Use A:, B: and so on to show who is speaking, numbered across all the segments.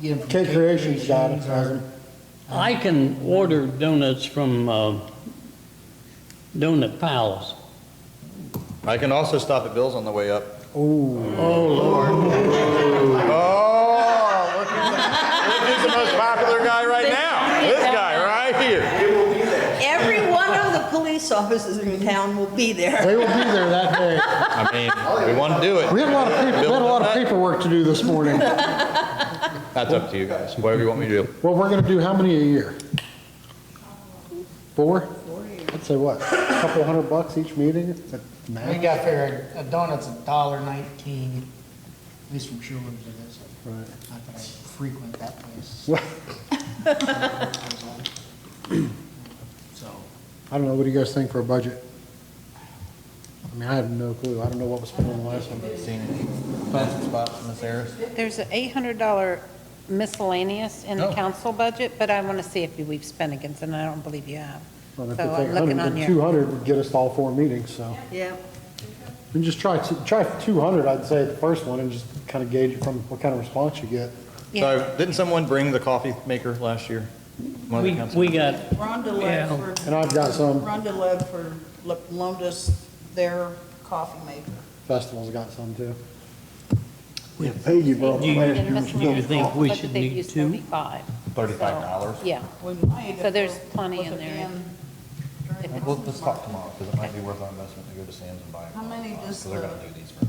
A: get them from
B: Kid Creations got it,
A: Creations or-
B: hasn't
C: I can order donuts from uh, Donut Palace.
D: I can also stop at Bill's on the way up.
B: Ooh,
C: Oh, Lord.
D: Oh, look who's the- look who's the most popular guy right now. This guy right here.
E: Every one of the police officers in town will be there.
B: they will be there that day.
D: I mean, we want to do
B: We
D: it.
B: had a lot of people, we had a lot of paperwork to do this morning.
D: That's up to you guys, whatever you want me to do.
B: Well, we're gonna do how many a year? Four? I'd say what, a couple hundred bucks each meeting? Is that
A: We
B: max?
A: got figured, a donut's a dollar nineteen, at least from Schuler's it is.
B: Right.
A: Not that I frequent that place.
B: Well,
A: So,
B: I don't know, what do you guys think for a budget? I mean, I have no clue, I don't know what was spent on the last one.
F: There's an $800 miscellaneous in the council budget, but I want to see if we've spent against it, and I don't believe you have. So
B: Well, if it's
F: Oh, I'm
B: 800,
F: looking
B: then
F: on your,
B: 200 would get us to all four meetings, so.
E: Yeah.
B: And just try, t- try 200, I'd say, the first one, and just kind of gauge from what kind of response you get.
F: yeah,
D: So didn't someone bring the coffee maker last year? One of the
C: We,
D: council-
C: we got,
G: Rhonda
C: Yeah.
G: Ledford.
B: And I've got some.
G: Rhonda Ledford lo- loaned us their coffee maker.
B: Festival's got some too.
C: Yeah,
B: paid you
C: Do you- do you think we should
F: but they've
C: need
F: used
C: two?
F: 35.
D: $35.
F: Yeah,
G: We might
F: So
G: have
F: there's
G: to
F: plenty
G: look
F: in there.
G: again during
D: Well,
G: the
D: let's
G: Christmas
D: talk
G: market.
D: tomorrow, because it might be worth our investment to go to Sam's and buy.
G: How many does
D: Because they're going
G: the-
D: to do these for,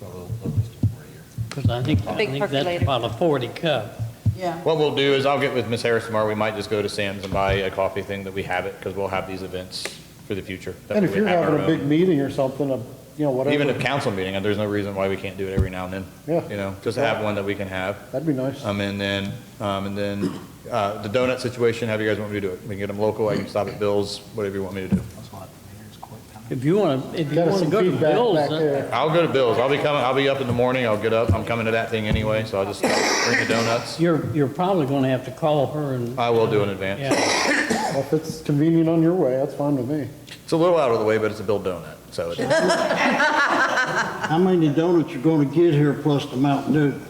D: for a little, at least for a year.
C: because I think, I
F: Big
C: think that's
F: percolator.
C: about a 40 cup.
G: Yeah,
D: What we'll do is I'll get with Miss Harris tomorrow. We might just go to Sam's and buy a coffee thing that we have it because we'll have these events for the future. that
B: And if
D: we
B: you're
D: have
B: having a
D: our
B: big
D: own.
B: meeting or something, a- you know,
D: Even a
B: whatever,
D: council meeting, and there's no reason why we can't do it every now and then.
B: Yeah.
D: You know, just to have one that we can have.
B: that'd be nice.
D: Um, and then, um, and then, uh, the donut situation, how do you guys want me to do it? We can get them local, I can stop at Bill's, whatever you want me to do.
A: that's why the mayor's quit coming.
C: If you want to, if you
B: Got us
C: want to
B: some
C: go to
B: feedback
C: Bill's,
B: back
C: uh,
B: there.
D: I'll go to Bill's. I'll be coming, I'll be up in the morning. I'll get up. I'm coming to that thing anyway, so I'll just bring the donuts.
C: you're, you're probably going to have to call her and,
D: I will do in advance.
C: yeah,
B: Well, If it's convenient on your way, that's fine with me.
D: It's a little out of the way, but it's a Bill donut, so it's.
H: How many donuts you gonna get here plus the Mountain Dew?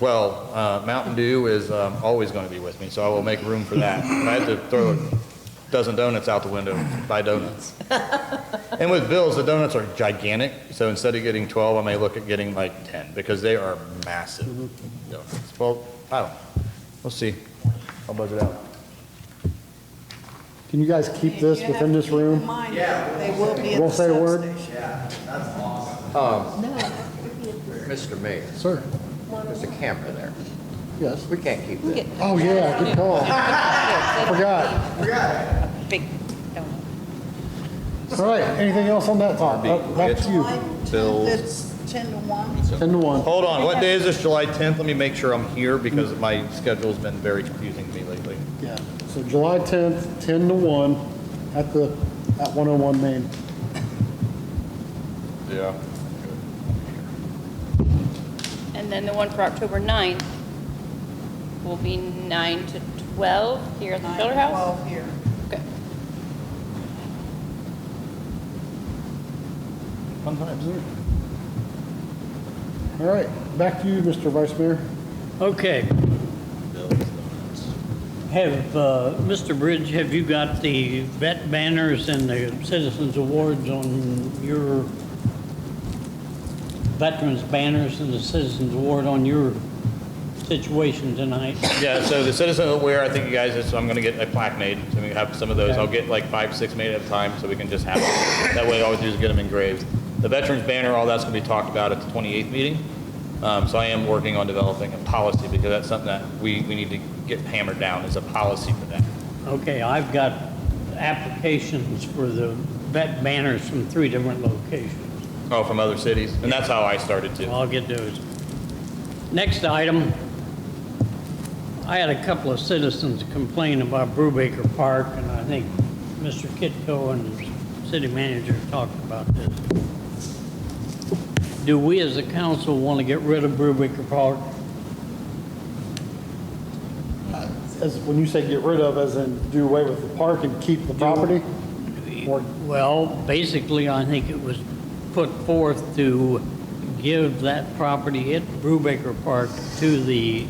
D: Well, uh, Mountain Dew is um, always going to be with me, so I will make room for that. If I had to throw a dozen donuts out the window, buy donuts. And with Bill's, the donuts are gigantic, so instead of getting 12, I may look at getting like 10, because they are massive
H: Mm-hmm.
D: donuts. Well, I don't, know. we'll see. I'll budget out.
B: Can you guys keep this
G: You
B: within
G: have
B: this
G: to keep in
B: room?
G: mind, They will be at
B: Won't
G: the
B: say a word?
G: substation.
I: Mr. Mayor,
B: Sir,
I: there's a camera there.
B: yes.
I: We can't keep that.
B: Oh, yeah, good call. Forgot.
F: big donut.
B: All right, anything else on that topic? Up- Back to you.
G: July
D: Bills.
G: 10th, It's 10 to 1.
B: 10 to 1.
D: Hold on, what day is this, July 10th? Let me make sure I'm here, because my schedule's been very confusing to me lately.
B: Yeah, so July 10th, 10 to 1, at the, at 101 Main.
D: Yeah.
J: And then the one for October 9th will be 9 to 12 here at the Schiller House?
G: 12 here.
J: Okay.
D: Fun times.
B: All right, back to you, Mr. Vice Mayor.
C: okay. Have, uh, Mr. Bridge, have you got the vet banners and the citizens awards on your veterans banners and the citizens award on your situation tonight?
D: Yeah, so the citizen aware, I think you guys, so I'm gonna get a plaque made, so we have some of those, I'll get like five, six made at a time, so we can just have them. That way, all we do is get them engraved. The veterans banner, all that's gonna be talked about at the 28th meeting. Um, so I am working on developing a policy, because that's something that we, we need to get hammered down, is a policy for that.
C: Okay, I've got applications for the vet banners from three different locations.
D: Oh, from other cities, and that's how I started too.
C: I'll get those. Next item, I had a couple of citizens complain about Brubaker Park, and I think Mr. Kitco and the city manager talked about this. Do we as a council want to get rid of Brubaker Park?
B: As, when you say get rid of, as in do away with the park and keep the property? Or-
C: Well, basically, I think it was put forth to give that property at Brubaker Park to the